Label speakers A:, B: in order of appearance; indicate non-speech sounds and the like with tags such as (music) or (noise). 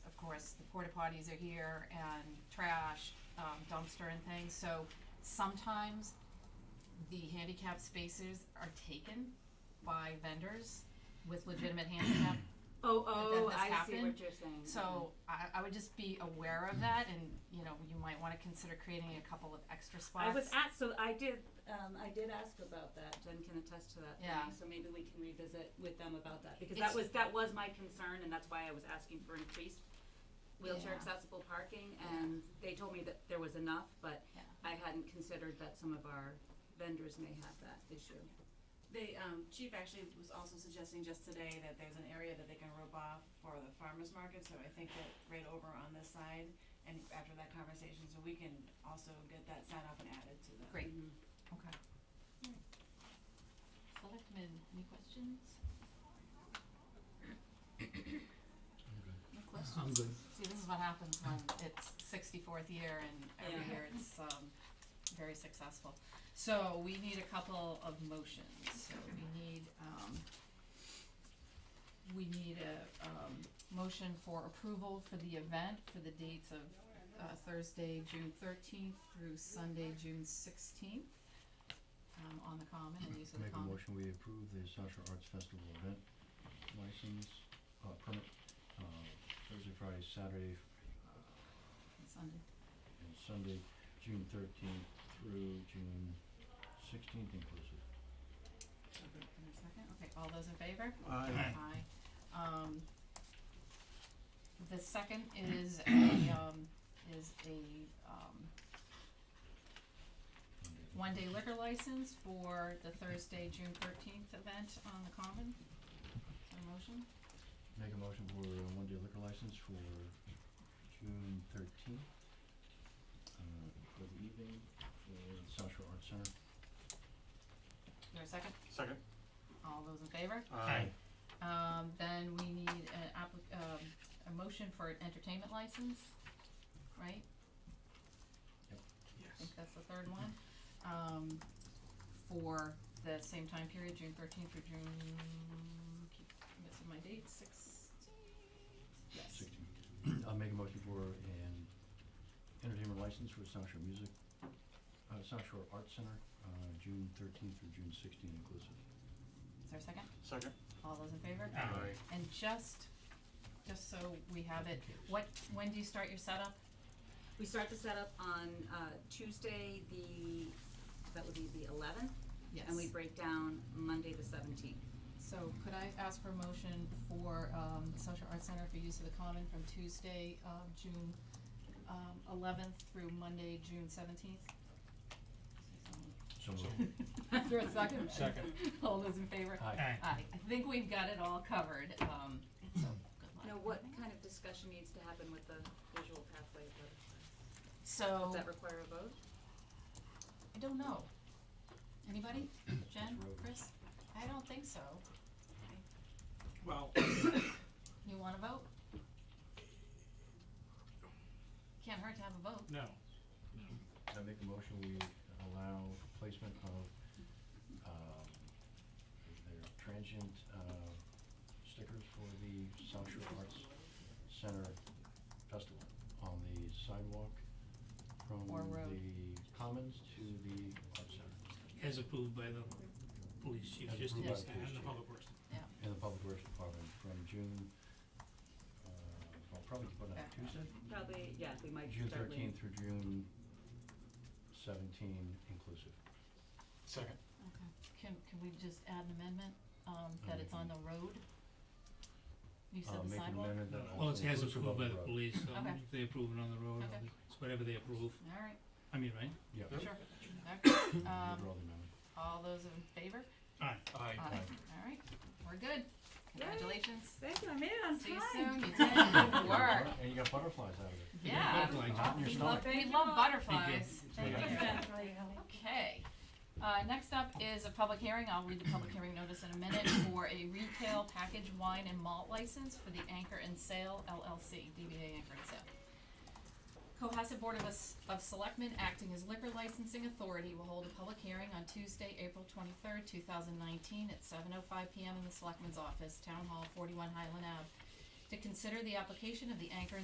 A: porta potties are here and trash, um, dumpster and things, so sometimes the handicap spaces are taken by vendors with legitimate handicap
B: Oh,
A: That
B: oh,
A: this
B: I see
A: happened.
B: what you're saying.
A: so I, I would just be aware of that and, you know, you might wanna consider creating a couple of extra spots.
B: I was asked, so I did, um, I did ask about that, Jen can attest to that, for me,
A: Yeah.
B: so maybe we can revisit with them about that, because
A: It's-
B: that was, that was my concern, and that's why I was asking for increased wheelchair
A: Yeah.
B: accessible parking,
A: Yeah.
B: and they told me that there was enough, but
A: Yeah.
B: I hadn't considered that some of our vendors may have that issue.
C: They, um, chief actually was also suggesting just today that there's an area that they can rope off for the farmer's market, so I think that right over on this side, and after that conversation, so we can also get that sign up and added to the.
A: Great.
B: Mhm.
A: Okay. Selectmen, any questions? No questions?
D: I'm good.
A: See, this is what happens when it's sixty-fourth year and every
B: Yeah.
A: year it's, um, very successful. So we need a couple of motions, so we need, um, we need a, um, motion for approval for the event for the dates of, uh, Thursday, June thirteenth through Sunday, June sixteenth, um, on the common and use of the
E: Make a
A: common.
E: motion, we approve the Sasha Arts Festival event license, uh, permit, uh, Thursday, Friday, Saturday,
A: Sunday.
E: and Sunday, June thirteenth through June sixteenth inclusive.
A: Okay, in a second, okay, all those in favor?
D: Aye.
A: Aye. Um, the second is a, um, is a, um,
E: Monday.
A: one-day liquor license for the Thursday, June thirteenth event on the Common. Is there a motion?
E: Make a motion for a one-day liquor license for June thirteenth, uh, for the evening, for the South Shore Arts Center.
A: Is there a second?
F: Second.
A: All those in favor? Um, then we need an applic- um, a motion for an entertainment license, right? I
F: Yes.
A: think that's the third one, um, for the same time period, June thirteenth through June, keep missing my dates, sixteenth, yes.
E: Sixteen. I'll make a motion for an entertainment license for South Shore Music, uh, South Shore Arts Center, uh, June thirteenth through June sixteenth inclusive.
A: Is there a second?
F: Second.
A: All those in favor? And just, just so we have it, what, when do you start your setup?
B: We start the setup on, uh, Tuesday, the, that would be the eleventh,
A: Yes.
B: and we break down Monday the seventeenth.
A: So could I ask for a motion for, um, Social Arts Center for use of the common from Tuesday, um, June, um, eleventh through Monday, June seventeenth?
E: So
F: So-
E: moved.
A: Is there a second?
F: Second.
A: All those in favor?
E: Aye.
A: Aye, I think we've got it all covered, um, so, good luck.
B: Now, what kind of discussion needs to happen with the visual pathway? vote?
A: So,
B: Does
E: Oh.
B: that require a vote?
A: I don't know. Anybody? Jen,
E: Road.
A: Chris? I don't think so.
F: Well,
A: You wanna vote? Can't hurt to have a vote.
F: no.
E: I make a motion, we allow placement of, um, their transient, uh, stickers for the South Shore Arts Center Festival on the sidewalk from
A: Or road.
E: the Commons to the Arts Center.
G: As approved by the police chief,
E: As
G: just
E: approved
A: by
G: needs
E: the
G: to,
E: police
G: and the
E: chief.
G: public works.
E: And the Public Works Department from June, uh, well, probably to put on
A: Okay.
E: Tuesday,
B: Probably, yeah, we might
E: June
B: start
E: thirteenth
B: with,
E: through June seventeen inclusive.
F: Second.
A: Okay. Can, can we just add an amendment, um, that it's on the road? You said
E: Uh,
A: the
E: make an
A: sidewalk?
E: amendment that
G: Well,
E: also
G: it has
E: inclusive of
G: approved by
E: the
G: the
E: road.
G: police, so
A: Okay.
G: they approve it on the road,
A: Okay.
G: it's whatever they approve,
A: Alright,
G: I mean, right?
E: Yeah.
F: Yep.
A: sure.
E: (coughs)
A: Okay,
E: These are
A: um,
E: all the amendments.
A: all those in favor?
F: Aye.
A: Aye. Alright, we're good. Congratulations.
B: thank you, I made it on time.
A: See you soon. You did
E: (laughs)
A: good work.
E: And you got butterflies out of it.
A: Yeah.
G: Like,
E: Hot in your
A: We
E: stomach.
A: love, we
B: Thank you
A: love
B: all.
A: butterflies.
G: Thank
A: Thank
G: you. Thank you.
A: you. Okay. Uh, next up is a public hearing. I'll read the public hearing notice in a minute for a retail package wine and malt license for the Anchor and Sale LLC, DBA Anchor and Sale. Cohasset Board of, Us- of Selectmen, acting as liquor licensing authority, will hold a public hearing on Tuesday, April twenty-third, two thousand nineteen, at seven oh five PM in the Selectmen's Office, Town Hall, forty-one Highland Ave, to consider the application of the Anchor and